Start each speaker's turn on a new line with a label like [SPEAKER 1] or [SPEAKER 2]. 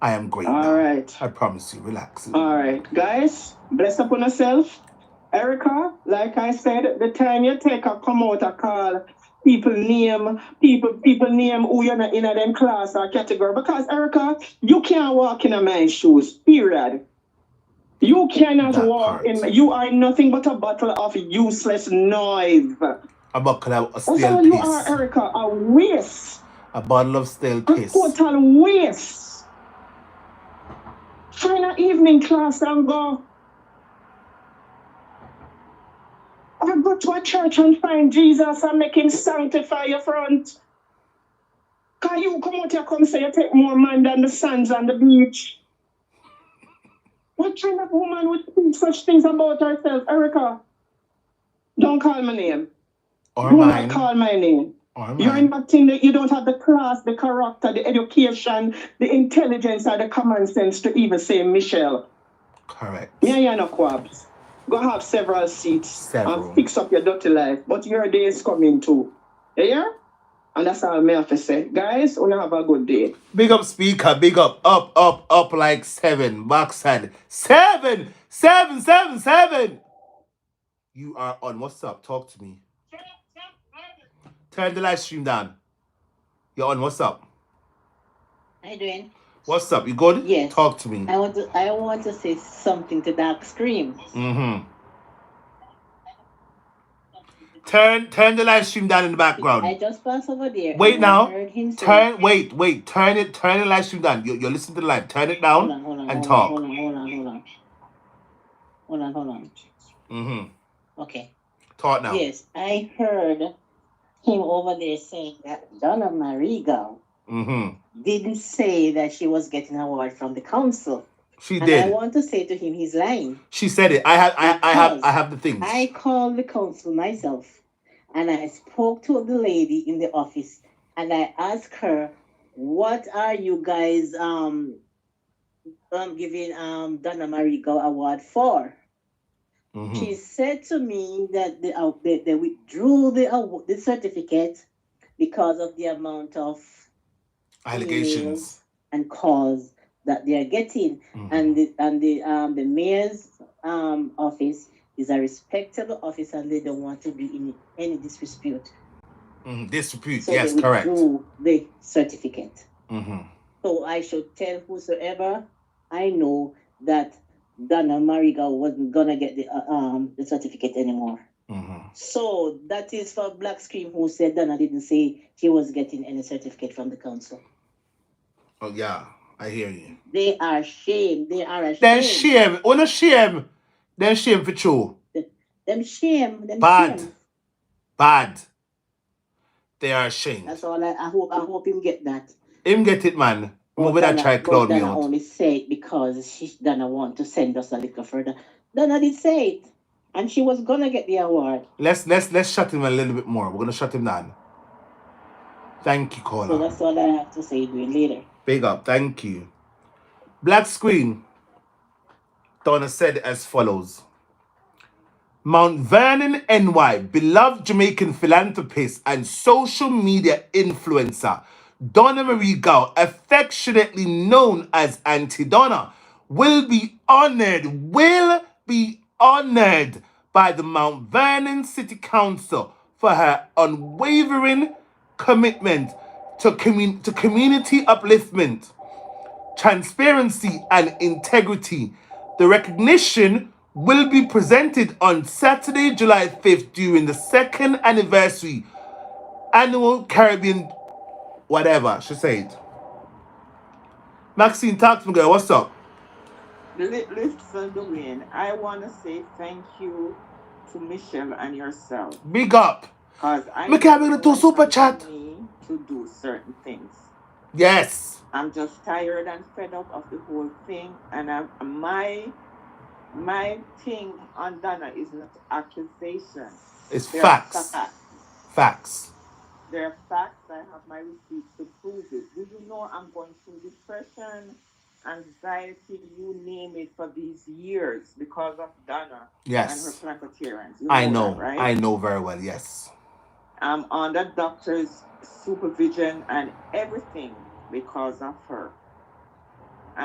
[SPEAKER 1] I am great
[SPEAKER 2] All
[SPEAKER 1] now.
[SPEAKER 2] right.
[SPEAKER 1] I promise you. Relax.
[SPEAKER 2] All right, guys, bless up on yourself. Erica, like I said, the time you take a come out a call, people name, people people name who you're not in a them class or category. Because Erica, you can't walk in a man's shoes, period. You cannot
[SPEAKER 1] That
[SPEAKER 2] walk
[SPEAKER 1] part.
[SPEAKER 2] in you are nothing but a bottle of useless noise.
[SPEAKER 1] A buckle of a
[SPEAKER 2] That's
[SPEAKER 1] stale
[SPEAKER 2] all Oh, you are,
[SPEAKER 1] piece.
[SPEAKER 2] Erica, a waste.
[SPEAKER 1] A bottle of stale
[SPEAKER 2] A
[SPEAKER 1] piece.
[SPEAKER 2] total waste. Find an evening class and go. Or go to a church and find Jesus and make him sanctify your front. Can you come out here come say you take more man than the sands on the beach? What kind of woman would think such things about herself, Erica? Don't call my name.
[SPEAKER 1] Or
[SPEAKER 2] Do not
[SPEAKER 1] mine.
[SPEAKER 2] call my name.
[SPEAKER 1] Or
[SPEAKER 2] You're in
[SPEAKER 1] mine.
[SPEAKER 2] that thing that you don't have the class, the character, the education, the intelligence, or the common sense to even say Michelle.
[SPEAKER 1] Correct.
[SPEAKER 2] Me and you no quabs. Go have several seats
[SPEAKER 1] Several.
[SPEAKER 2] and fix up your dirty life. But your day is coming too. You hear? And that's all me have to say. Guys, wanna have a good day.
[SPEAKER 1] Big up speaker, big up, up, up, up like seven. Backside. Seven, seven, seven, seven. You are on. What's up? Talk to me. Turn the live stream down. You're on. What's up?
[SPEAKER 3] How you doing?
[SPEAKER 1] What's up? You good?
[SPEAKER 3] Yes.
[SPEAKER 1] Talk to me.
[SPEAKER 3] I want to I want to say something to Dark Scream.
[SPEAKER 1] Mm-hmm. Turn turn the live stream down in the
[SPEAKER 3] I
[SPEAKER 1] background.
[SPEAKER 3] just passed over there.
[SPEAKER 1] Wait
[SPEAKER 3] and
[SPEAKER 1] now.
[SPEAKER 3] I heard him say,
[SPEAKER 1] Turn wait, wait, turn it, turn the live stream down. You you're listening to the live. Turn it
[SPEAKER 3] Hold
[SPEAKER 1] down
[SPEAKER 3] on, hold on,
[SPEAKER 1] and
[SPEAKER 3] hold on,
[SPEAKER 1] talk.
[SPEAKER 3] hold on, hold on, hold on. Hold on, hold on.
[SPEAKER 1] Mm-hmm.
[SPEAKER 3] Okay.
[SPEAKER 1] Talk now.
[SPEAKER 3] Yes, I heard him over there saying that Donna Marigo
[SPEAKER 1] Mm-hmm.
[SPEAKER 3] didn't say that she was getting an award from the council.
[SPEAKER 1] She
[SPEAKER 3] And I
[SPEAKER 1] did.
[SPEAKER 3] want to say to him he's lying.
[SPEAKER 1] She said it. I have I, I have I
[SPEAKER 3] Because
[SPEAKER 1] have the things.
[SPEAKER 3] I called the council myself and I spoke to the lady in the office and I asked her, what are you guys um, um giving um Donna Marigo award for?
[SPEAKER 1] Mm-hmm.
[SPEAKER 3] She said to me that they, uh, they, they withdrew the, awa- the certificate because of the amount of
[SPEAKER 1] Allegations.
[SPEAKER 3] emails and calls that they are getting
[SPEAKER 1] Mhm.
[SPEAKER 3] and the and the um the mayor's um office is a respectable office and they don't want to be in any dispute.
[SPEAKER 1] Mhm. Dispute.
[SPEAKER 3] So
[SPEAKER 1] Yes,
[SPEAKER 3] they
[SPEAKER 1] correct.
[SPEAKER 3] withdrew the certificate.
[SPEAKER 1] Mm-hmm.
[SPEAKER 3] So I should tell whosoever I know that Donna Mariga wasn't gonna get the uh, um the certificate anymore.
[SPEAKER 1] Mm-hmm.
[SPEAKER 3] So that is for Black Scream who said Donna didn't say she was getting any certificate from the council.
[SPEAKER 1] Oh yeah, I hear you.
[SPEAKER 3] They are ashamed. They are ashamed.
[SPEAKER 1] Then shame. Oh no shame. Then shame for true.
[SPEAKER 3] Them shame. Them
[SPEAKER 1] Bad.
[SPEAKER 3] shame.
[SPEAKER 1] Bad. They are ashamed.
[SPEAKER 3] That's all I, I hope. I hope him get that.
[SPEAKER 1] Him get it, man.
[SPEAKER 3] But
[SPEAKER 1] Move that
[SPEAKER 3] Donna-
[SPEAKER 1] try
[SPEAKER 3] but
[SPEAKER 1] clown me
[SPEAKER 3] Donna
[SPEAKER 1] out.
[SPEAKER 3] only say it because she Donna want to send us a little further. Donna did say it, and she was gonna get the award.
[SPEAKER 1] Let's let's let's shut him a little bit more. We're gonna shut him down. Thank you,
[SPEAKER 3] So
[SPEAKER 1] caller.
[SPEAKER 3] that's all I have to say. Doing later.
[SPEAKER 1] Big up. Thank you. Black screen. Donna said as follows. Mount Vernon, NY, beloved Jamaican philanthropist and social media influencer, Donna Marie Gow, affectionately known as Auntie Donna, will be honored, will be honored by the Mount Vernon City Council for her unwavering commitment to, commun- to community upliftment transparency, and integrity. The recognition will be presented on Saturday, July 5th during the second anniversary annual Caribbean whatever, she said. Maxine, talk to me, girl. What's up?
[SPEAKER 2] Li- Listen, Dwayne, I want to say thank you to Michelle and yourself
[SPEAKER 1] Big up.
[SPEAKER 2] because I
[SPEAKER 1] Me
[SPEAKER 2] know
[SPEAKER 1] can
[SPEAKER 2] it
[SPEAKER 1] to
[SPEAKER 2] was
[SPEAKER 1] super
[SPEAKER 2] up to
[SPEAKER 1] chat.
[SPEAKER 2] me to do certain things.
[SPEAKER 1] Yes.
[SPEAKER 2] I'm just tired and fed up of the whole thing, and I, my my thing on Donna is not accusation.
[SPEAKER 1] It's
[SPEAKER 2] There are
[SPEAKER 1] facts.
[SPEAKER 2] facts.
[SPEAKER 1] Facts.
[SPEAKER 2] There are facts. I have my receipts to prove it. Do you know I'm going through depression, anxiety, you name it, for these years because of Donna and her
[SPEAKER 1] Yes.
[SPEAKER 2] placatarians. You
[SPEAKER 1] I
[SPEAKER 2] know that,
[SPEAKER 1] know.
[SPEAKER 2] right?
[SPEAKER 1] I know very well. Yes.
[SPEAKER 2] Um, I'm under doctor's supervision and everything because of her.